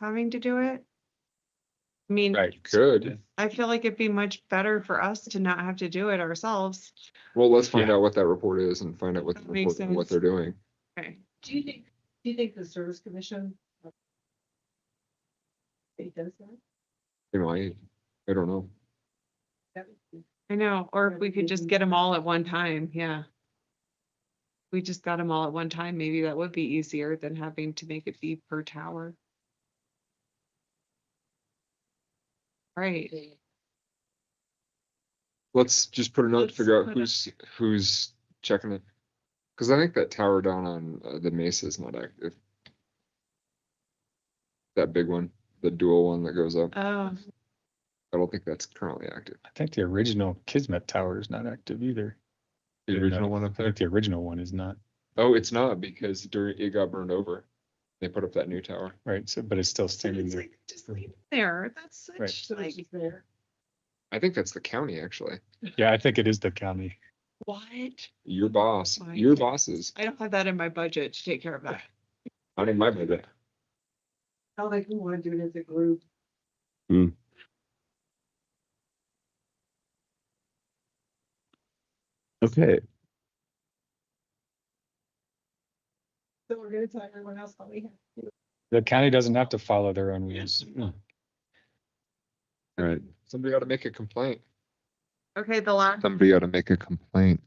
having to do it. I mean, Right, you could. I feel like it'd be much better for us to not have to do it ourselves. Well, let's find out what that report is and find out what, the That makes report- what sense. they're doing. Okay, Do you think, do you think the service commission? uh, It does that? You know, I, I don't know. That would be- I know, or if we could just Mhm. get them all at one time, yeah. We just got them all at one time, maybe that would be easier than having to make it be per tower. Right, they- Let's just put a note, Let's to figure put out a- who's, who's checking it. Cause I think that tower down on uh, the mesa is not active. That big one, the dual one that goes up, oh, I don't think that's currently active. I think the original Kismet Tower is not active either. The Yeah, original no. one up I there? think the original one is not, Oh, it's not because during, it got burned over. They put up that new tower. right? So, but it's still so standing it's there. like, Just leave there, that's Right. such the like, services there. I think that's the county, actually. Yeah, I think it is the county. what? Your boss, Why? your bosses, I don't have that in my budget to take care of that. not in my budget. How like we want to do it as a group. Okay, So we're gonna tell everyone else how we have. The county doesn't have to follow their own rules. all right. Somebody ought to make a complaint. Okay, the last, Somebody ought to make a complaint.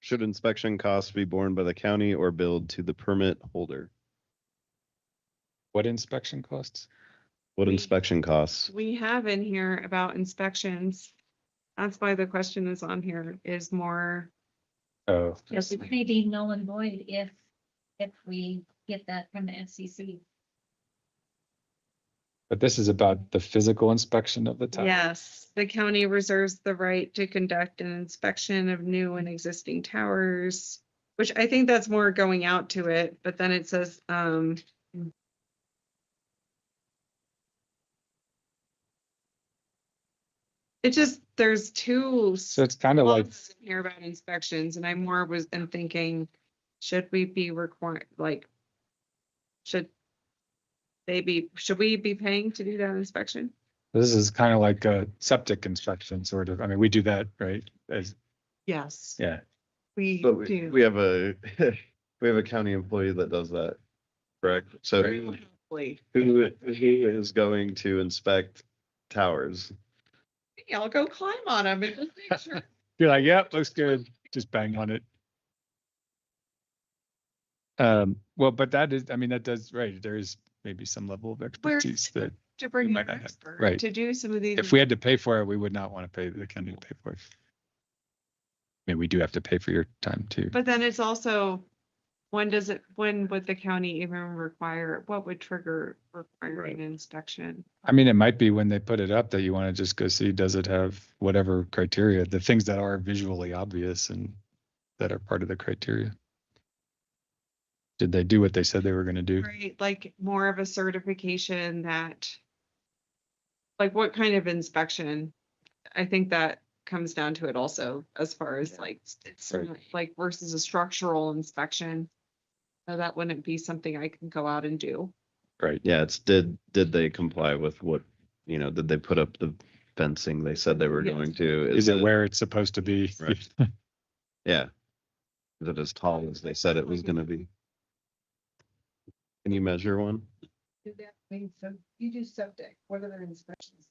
Should inspection costs be borne by the county or billed to the permit holder? What inspection costs? What We- inspection costs? we have in here about inspections. That's why the question is on here, is more Oh, Yes, it may be null and void if, if we get that from the FCC. but this is about the physical inspection of the tower. Yes, the county reserves the right to conduct an inspection of new and existing towers, which I think that's more going out to it, but then it says, um. It just, there's two. So it's kind of like, clauses in Here about inspections and I more was, am thinking, should we be required, like? Should. They be, should we be paying to do that inspection? this is kind of like a septic inspection sort of. I mean, we do that, right? As, Yes. yeah. We But we, do. we have a, we have a county employee that does that, correct? So who, Probably. who who is going to inspect towers? Hey, I'll go climb on them and just make sure. You're like, yep, looks good. Just bang on it. Um, well, but that is, I mean, that does, right, there is maybe some level of expertise that To bring in might an not have- expert right. to do some of these. if we had to pay for it, we would not want to pay the county to pay for it. I mean, we do have to pay for your time too. But then it's also, when does it, when would the county even require, what would trigger requiring an inspection? I mean, it might be when they put it up that you want to just go see, does it have whatever criteria, the things that are visually obvious and that are part of the criteria? Did they do what they said they were going to do? Right, like more of a certification that. Like what kind of inspection? I think that comes down to it also, as far as like, it's sort of like versus a structural inspection. So that wouldn't be something I can go out and do. Right. Yeah, it's did, did they comply with what, you know, did they put up the fencing they said they were Yes. going to? Is it where it's supposed to be? Right. Yeah. Is it as tall as they said it was gonna be? Can you measure one? Do that, I mean, so you do septic, what other inspections?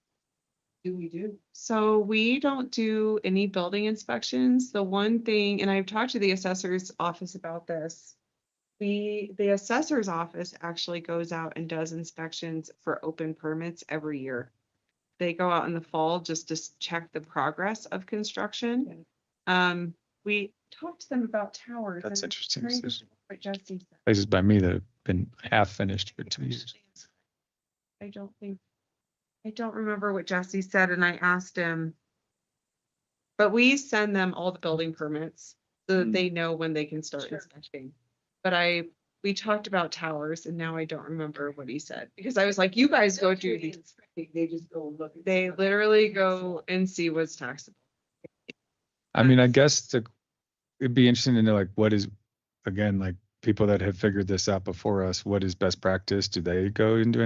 Do we do? So we don't do any building inspections. The one thing, and I've talked to the assessor's office about this. We, the assessor's office actually goes out and does inspections for open permits every year. They go out in the fall just to s- check the progress of construction. Um, we talked to them about towers. That's and I'm interesting. trying to There's remember what Jesse said. Places by me that have been half finished for two years. I don't think, I don't remember what Jesse said and I asked him. But we send them all the building permits so that they know when they can start Sure. inspecting. But I, we talked about towers and now I don't remember what he said because I was like, you guys go do these. They just go and look. They literally go and see what's taxable. I mean, I guess the, it'd be interesting to know like what is, again, like people that have figured this out before us, what is best practice? Do they go and do